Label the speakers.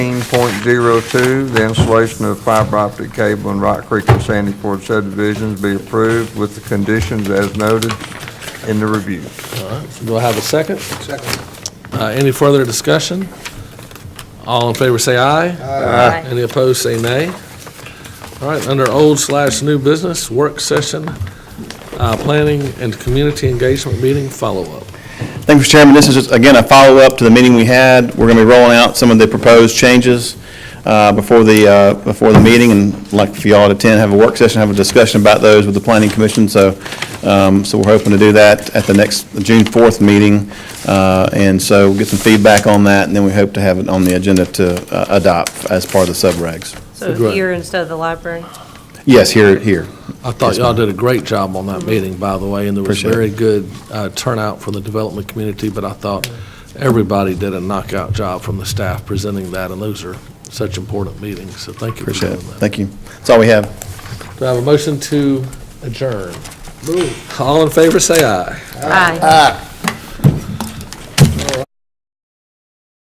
Speaker 1: 18.02, the installation of fiber optic cable in Rock Creek and Sandy Ford subdivisions be approved with the conditions as noted in the review.
Speaker 2: Do I have a second? Second. Any further discussion? All in favor say aye.
Speaker 3: Aye.
Speaker 2: Any opposed say nay. All right, under old slash new business, work session, uh, planning and community engagement meeting follow-up.
Speaker 4: Thank you, Mr. Chairman. This is, just, again, a follow-up to the meeting we had. We're going to be rolling out some of the proposed changes uh, before the, uh, before the meeting, and I'd like for y'all to attend, have a work session, have a discussion about those with the Planning Commission, so, um, so we're hoping to do that at the next June 4th meeting, Uh, and so we'll get some feedback on that, and then we hope to have it on the agenda to uh, adopt as part of the subregs.
Speaker 3: So
Speaker 2: Great.
Speaker 3: here instead of the library?
Speaker 4: Yes, here, here.
Speaker 2: I thought y'all did a great job on that meeting, by the way, and there was
Speaker 4: Appreciate
Speaker 2: very
Speaker 4: it.
Speaker 2: good uh, turnout from the development community, but I thought everybody did a knockout job from the staff presenting that, and those are such important meetings, so thank you for
Speaker 4: Appreciate
Speaker 2: doing
Speaker 4: it.
Speaker 2: that.
Speaker 4: Thank you. That's all we have.
Speaker 2: Do I have a motion to adjourn? All in favor, say aye.
Speaker 3: Aye.